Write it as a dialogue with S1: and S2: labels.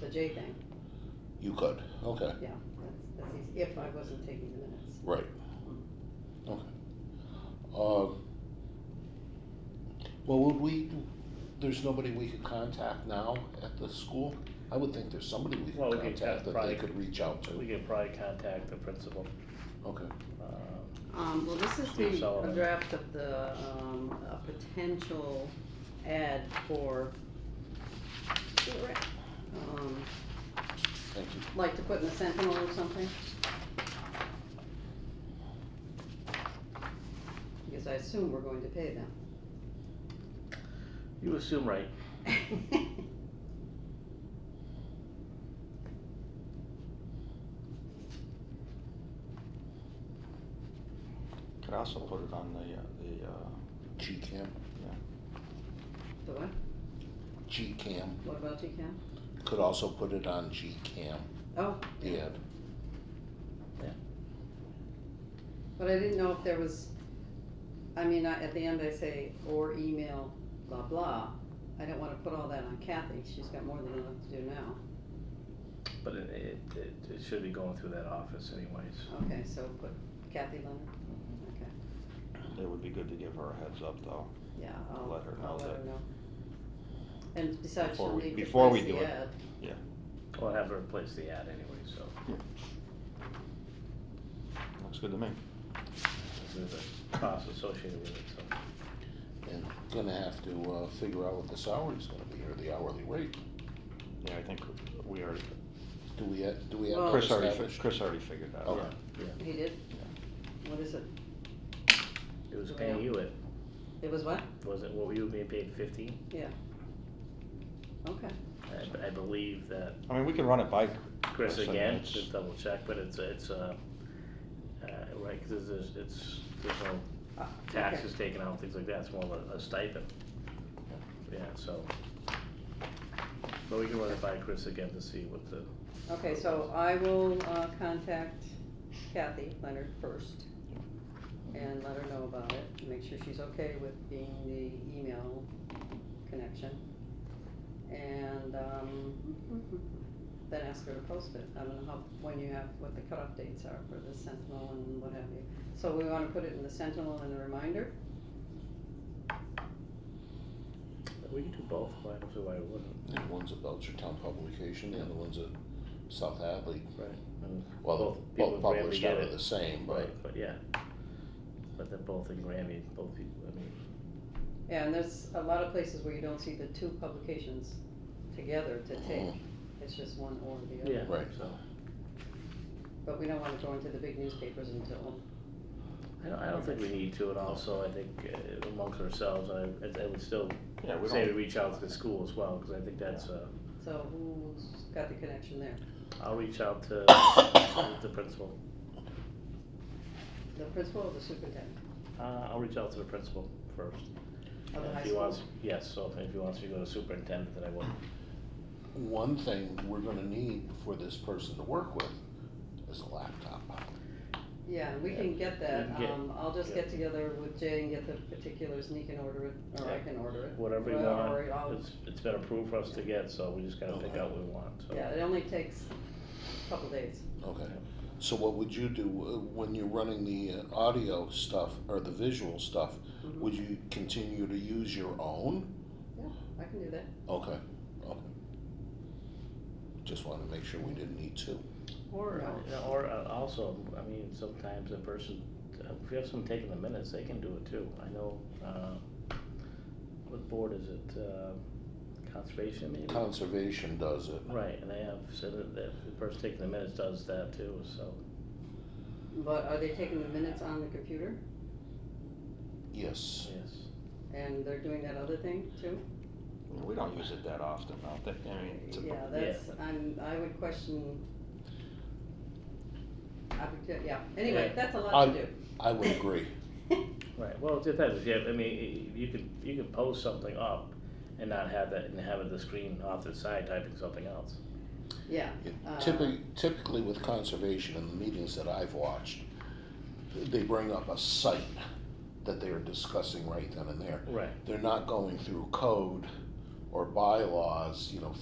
S1: the J thing,
S2: You could, okay,
S1: yeah, that's, that's easy, if I wasn't taking the minutes.
S2: right. Okay. Um, Well, would we, there's nobody we could contact now at the school? I would think there's somebody we
S3: Well,
S2: could
S3: we could
S2: contact that they
S3: probably-
S2: could reach out
S3: We
S2: to.
S3: could probably contact the principal.
S2: Okay,
S3: Um,
S1: Um, well, this is
S3: Steve
S1: the, a
S3: Sullivan.
S1: draft of the, um, a potential ad for school rec. Um,
S2: thank you.
S1: like to put in the Sentinel or something? Because I assume we're going to pay them.
S3: You assume right.
S4: Could also put it on the, uh, the, uh,
S2: G-CAM,
S1: The what?
S2: G-CAM,
S1: What about TCAM?
S2: could also put it on G-CAM,
S1: Oh,
S2: the ad.
S1: but I didn't know if there was, I mean, I, at the end I say, or email, blah, blah. I don't wanna put all that on Kathy, she's got more than enough to do now.
S3: But it, it, it- it should be going through that office anyways.
S1: Okay, so put Kathy Leonard, okay,
S4: it would be good to give her a heads up though.
S1: yeah, I'll,
S4: Let her know
S1: I'll let
S4: that-
S1: her know. And besides,
S4: Before
S1: she'll
S4: we-
S1: need to
S4: before we
S1: place the
S4: do it.
S1: ad.
S3: We'll have her place the ad anyway, so.
S4: Looks good to me.
S3: There's a cost associated with it, so.
S2: And gonna have to, uh, figure out what the salary's gonna be, or the hourly rate.
S4: Yeah, I think we already,
S2: Do we, ha- do we have?
S1: Well-
S2: that
S4: Chris already, fi-
S2: established?
S4: Chris already figured that
S2: Okay.
S4: out.
S1: He did? What is it?
S3: It was paying you it,
S1: It was what?
S3: was it, well, you were being paid fifteen?
S1: Okay,
S3: I, I believe that
S4: I mean, we can run it by
S3: Chris
S4: Chris, I mean,
S3: again,
S4: it's-
S3: to double check, but it's, it's, uh, uh, right, cause there's, it's, there's no
S1: uh, okay,
S3: taxes taken out, things like that, it's more of a- a stipend. Yeah, so. But we can run it by Chris again to see what the,
S1: okay, so I will, uh, contact Kathy Leonard first. And let her know about it, make sure she's okay with being the email connection. And, um, then ask her to post it, I don't know how, when you have, what the cutoff dates are for the Sentinel and what have you. So we wanna put it in the Sentinel and a reminder,
S3: we can do both, why, so why wouldn't?
S2: Yeah, one's a Belchertown publication, the other one's a South Hadley.
S3: Right. And
S2: Well,
S3: both people
S2: both
S3: in Grammy
S2: published
S3: get
S2: out of
S3: it.
S2: the same, but
S3: Right, but yeah. But they're both in Grammy, both people, I mean,
S1: Yeah, and there's a lot of places where you don't see the two publications together to take, it's just one or the other.
S3: yeah,
S2: Right.
S3: so.
S1: But we don't wanna go into the big newspapers until,
S3: I don't, I don't think we need to, and also I think uh, amongst ourselves, I, I- I would still
S4: Yeah, we
S3: say to
S4: don't,
S3: reach out to the school as well, cause I think that's, uh,
S1: so who's got the connection there?
S3: I'll reach out to the principal.
S1: The principal or the superintendent
S3: Uh, I'll reach out to the principal first.
S1: of the
S3: And
S1: high
S3: If he
S1: school?
S3: wants, yes, so if he wants to go to superintendent, then I will.
S2: one thing we're gonna need for this person to work with is a laptop.
S1: Yeah, we can get that,
S3: We can get-
S1: um, I'll just
S3: yeah.
S1: get together with Jay and get the particulars and he can order it, or I
S3: Yeah.
S1: can order it.
S3: Whatever you
S1: Well,
S3: want,
S1: or I'll-
S3: it's, it's been approved for us to get, so we just gotta pick out what we want, so.
S1: Yeah, it only takes a couple days.
S2: Okay, so what would you do uh, when you're running the uh, audio stuff or the visual stuff?
S1: Mhm.
S2: Would you continue to use your own?
S1: I can do that.
S2: Okay, okay. Just wanted to make sure we didn't need two.
S3: Or,
S1: No.
S3: you know, or uh, also, I mean, sometimes a person, if you have someone taking the minutes, they can do it too. I know, uh, what board is it, uh, conservation maybe?
S2: Conservation does it.
S3: Right, and they have said that that the person taking the minutes does that too, so.
S1: But are they taking the minutes on the computer
S2: Yes,
S3: Yes.
S1: and they're doing that other thing too?
S4: we don't use it that often, I don't think, I mean, it's a-
S1: Yeah, that's, I'm, I would question. I would, ju- yeah, anyway,
S3: Yeah. Um,
S1: that's a lot to
S2: I-
S1: do.
S2: I would agree.
S3: Right, well, it depends, if you have, I mean, you can, you can post something up and not have that, and have the screen off to the side typing something else.
S1: Yeah, Uh,
S2: Typically, typically with conservation in the meetings that I've watched, they bring up a site that they are discussing right then and there.
S3: Right.
S2: They're not going through code or bylaws, you know,